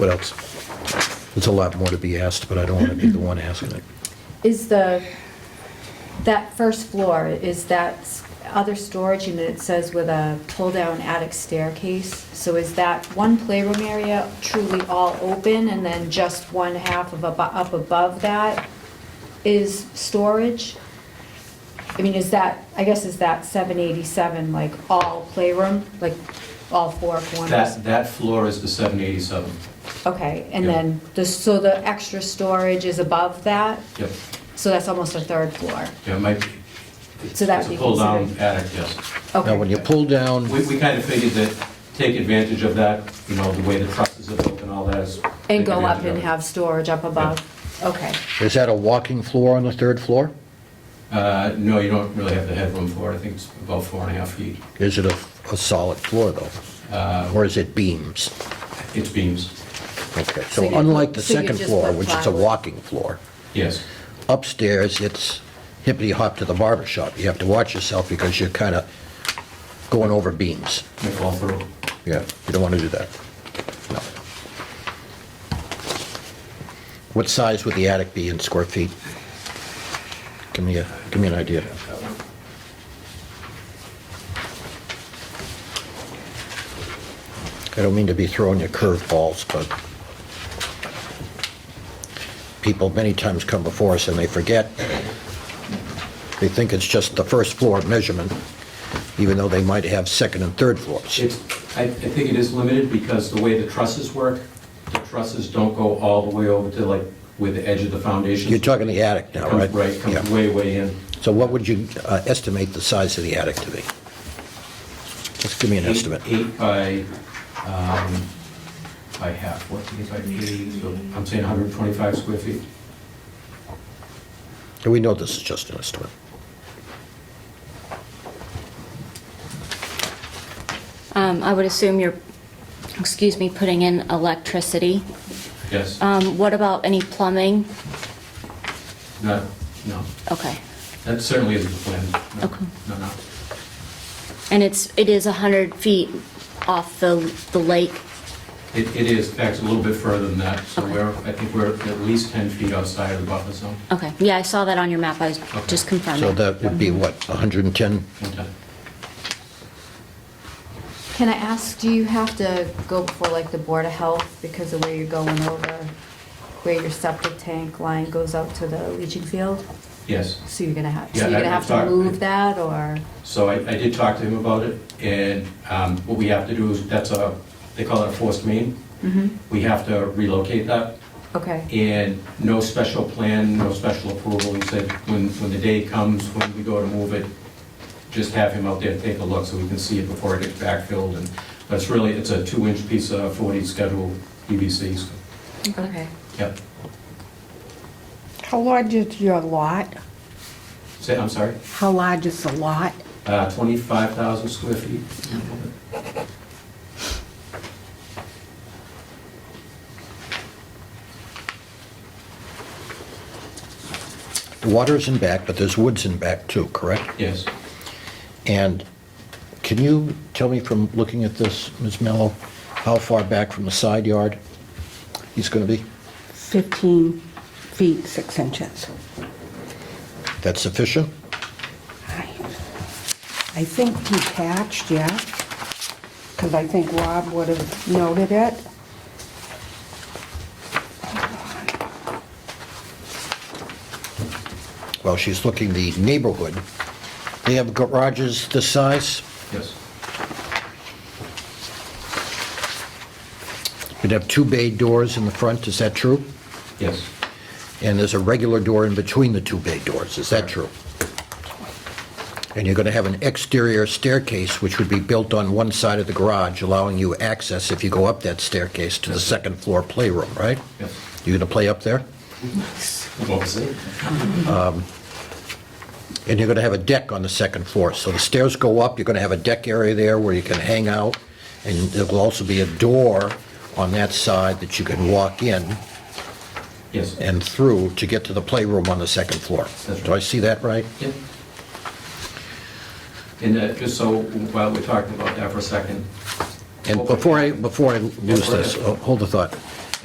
What else? There's a lot more to be asked, but I don't want to be the one asking it. Is the, that first floor, is that s- other storage unit, it says with a pull-down attic staircase? So is that one playroom area truly all open and then just one half of, abo- up above that is storage? I mean, is that, I guess is that 787 like all playroom, like all four corners? That, that floor is the 787. Okay, and Yeah. then, the so the extra storage is above that? Yep, So that's almost a third floor? yeah, it might be. So that would be It's a pull-down considered- attic, yes. Now, when Okay, you pull down, We, we kind of figured that, take advantage of that, you know, the way the trusses are built and all that is. and take go up advantage of and it. have storage up above? Okay, is that a walking floor on the third floor? Uh, no, you don't really have the headroom for it, I think it's about four and a half feet. Is it a, a solid floor, though? Or is it beams? It's beams, Okay, So so you- unlike the so you second just floor, put which is a plywood. walking floor, yes. upstairs, it's hippity-hop to the barber shop. You have to watch yourself because you're kind of going over beams. Might fall through. Yeah, you don't want to do that. No. What size would the attic be in square feet? Give me a, give me an idea. I don't mean to be throwing you curveballs, but people many times come before us and they forget. They think it's just the first floor measurement, even though they might have second and third floors. It's, I, I think it is limited because the way the trusses work, the trusses don't go all the way over to like, where the edge of the foundation. You're talking the attic now, right? Right, comes Yeah. way, way in. So what would you uh, estimate the size of the attic to be? Just give me an Eight- estimate. Eight by, um, by half, what, eight by eighty, so I'm saying 125 square feet. And we know this is just an estimate. Um, I would assume you're, excuse me, putting in electricity. Yes, Um, What about any plumbing? no, no, Okay. that certainly isn't the plan. No, Okay. No, no, And it's, it is 100 feet off the, the lake? it, it is, in fact, a little bit further than that, so Okay. we're, I think we're at least 10 feet outside of the buffer zone. Okay, yeah, I saw that on your map, I was just confirming. So that would be what, 110? Okay. can I ask, do you have to go before like the Board of Health because of where you're going over, where your septic tank line goes out to the leaching field? Yes. So you're gonna have, so Yeah, you're I- gonna have to sorry. move that, or? So I, I did talk to him about it, and um, what we have to do is, that's a, they call it a forced main. Mm-hmm. Mhm. We have to relocate that, Okay, and no special plan, no special approval. He said, when, when the day comes, when we go to move it, just have him out there take a look so we can see it before it gets backfilled. And but it's really, it's a two-inch piece of 40 schedule PVC, so, okay. yep. How large is your lot? Say, I'm sorry, How large is the lot? uh, 25,000 square feet? The water's in back, but there's woods in back too, correct? Yes. And can you tell me from looking at this, Ms. Mello, how far back from the side yard he's going to be? 15 feet, 6 inches. That's sufficient? I I think detached, yeah, because I think Rob would have noted it. Well, she's looking the neighborhood. They have garages this size? Yes. You'd have two bay doors in the front, is that true? Yes. And there's a regular door in between the two bay doors, is that true? And you're going to have an exterior staircase, which would be built on one side of the garage, allowing you access, if you go up that staircase, to the second floor playroom, right? Yes. You're going to play up there? What was it? And you're going to have a deck on the second floor. So the stairs go up, you're going to have a deck area there where you can hang out, and there will also be a door on that side that you can walk in Yes. and through to get to the playroom on the second floor. That's Do I see that right? Yep. And uh, just so, while we're talking about that for a second. And before I, before I lose go ahead. this, oh, hold the thought.